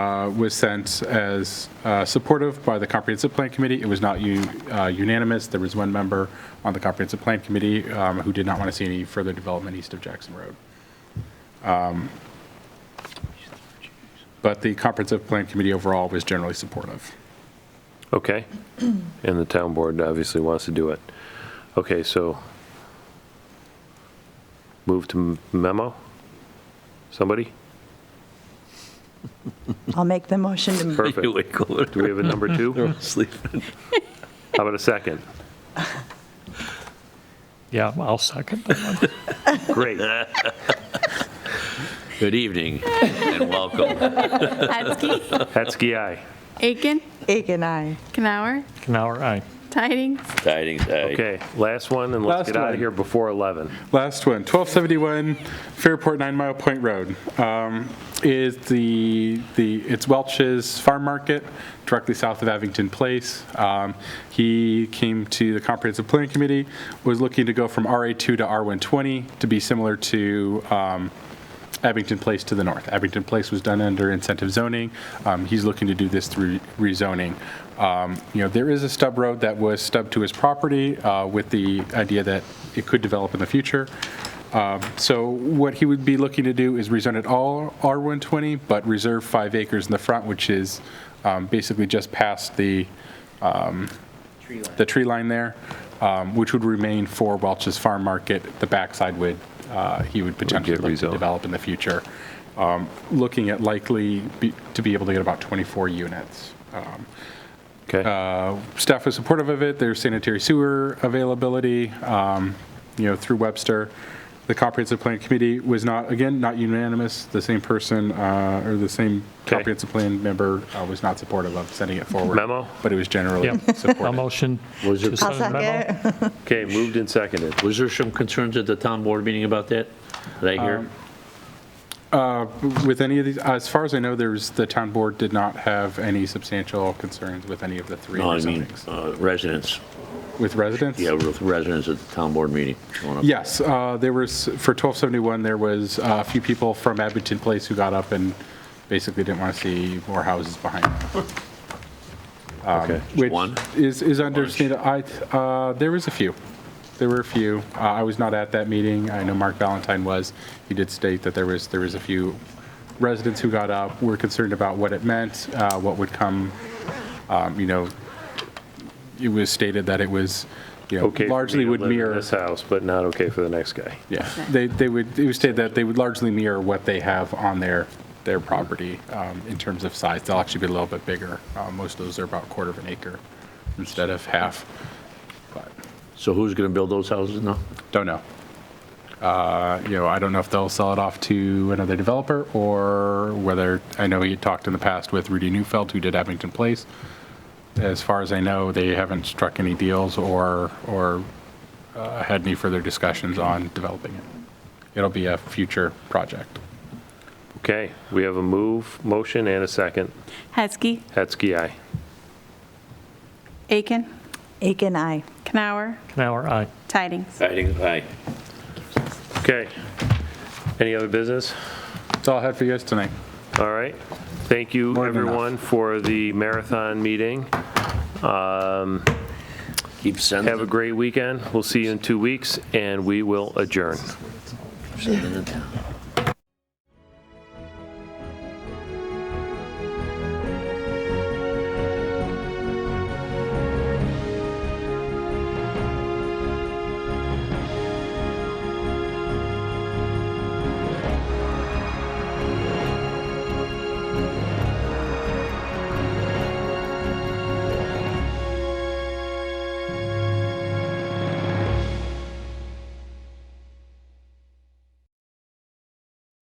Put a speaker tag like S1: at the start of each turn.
S1: uh, was sent as uh, supportive by the Comprehensive Plan Committee. It was not u- uh, unanimous. There was one member on the Comprehensive Plan Committee um, who did not want to see any further development east of Jackson Road. Um, But the Comprehensive Plan Committee overall was generally supportive.
S2: Okay. And the town board obviously wants to do it. Okay, so move to memo? Somebody?
S3: I'll make the motion to
S2: Perfect.
S4: You ain't going
S2: Do we have a number two?
S4: to sleep.
S2: How about a second?
S5: Yeah, I'll second that.
S2: Great.
S4: Good evening and welcome.
S6: Hetzke,
S2: Hetzke, aye.
S6: Aiken,
S3: Aiken, aye.
S6: Canower,
S5: Canower, aye.
S6: Tidings,
S4: Tidings, eh? aye.
S2: Okay, last one, and
S1: Last
S2: let's get out
S1: one.
S2: of here before 11.
S1: Last one, 1271 Fairport Nine Mile Point Road. Um, Is the, the, it's Welch's Farm Market, directly south of Abington Place. Um, He came to the Comprehensive Planning Committee, was looking to go from RA2 to R120 to be similar to um, Abington Place to the north. Abington Place was done under incentive zoning. Um, He's looking to do this through rezoning. Um, You know, there is a stub road that was stubbed to his property uh, with the idea that it could develop in the future. Um, So what he would be looking to do is rezone it all R120, but reserve five acres in the front, which is um, basically just past the, the tree line there, um, which would remain for Welch's Farm Market. The backside would, uh, he would potentially look to
S2: rezoned.
S1: develop in the future, Um, looking at likely be- to be able to get about 24 units. Um, Uh,
S2: Okay,
S1: Staff was supportive of it, there's sanitary sewer availability, um, you know, through Webster. The Comprehensive Plan Committee was not, again, not unanimous, the same person, uh, or the same
S2: Okay.
S1: Comprehensive Plan member uh, was not supportive of sending it forward.
S2: Memo?
S1: But it was generally
S5: Yep. I'll
S1: supported.
S5: motion
S4: Was
S5: to
S4: it-
S3: I'll
S5: send the memo.
S3: second.
S2: okay, moved and seconded.
S4: Was there some concerns at the town board meeting about that? Did I hear?
S1: With any of these, as far as I know, there's, the town board did not have any substantial concerns with any of the three
S4: No, I mean,
S1: rezonings.
S4: uh, residents,
S1: With residents?
S4: yeah, with residents at the town board meeting. showing up.
S1: Yes, uh, there was, for 1271, there was uh, a few people from Abington Place who got up and basically didn't want to see more houses behind them.
S2: Okay.
S1: Which
S4: one?
S1: is, is understandable. I, uh, there was a few. There were a few. Uh, I was not at that meeting. I know Mark Valentine was. He did state that there was, there was a few residents who got up, were concerned about what it meant, uh, what would come, um, you know, it was stated that it was, you know,
S2: Okay for me
S1: largely
S2: to
S1: would
S2: live in
S1: mirror.
S2: This house, but not okay for the next guy.
S1: Yeah, they, they would, it was stated that they would largely mirror what they have on their, their property um, in terms of size. They'll actually be a little bit bigger. Uh, Most of those are about quarter of an acre instead of half. But
S4: So who's going to build those houses now?
S1: Don't know. Uh, You know, I don't know if they'll sell it off to another developer or whether, I know he talked in the past with Rudy Newfeld, who did Abington Place. As far as I know, they haven't struck any deals or, or uh, had any further discussions on developing it. It'll be a future project.
S2: Okay, we have a move, motion, and a second.
S6: Hetzke,
S2: Hetzke, aye.
S6: Aiken,
S3: Aiken, aye.
S6: Canower,
S5: Canower, aye.
S6: Tidings.
S4: Tidings, aye.
S2: Okay. Any other business?
S1: That's all I had for you guys tonight.
S2: All right. Thank you,
S1: More than enough.
S2: everyone, for the marathon meeting. Um,
S4: Keep sending
S2: Have a great weekend. We'll see you in two weeks, and we will adjourn.
S4: them, sending them down.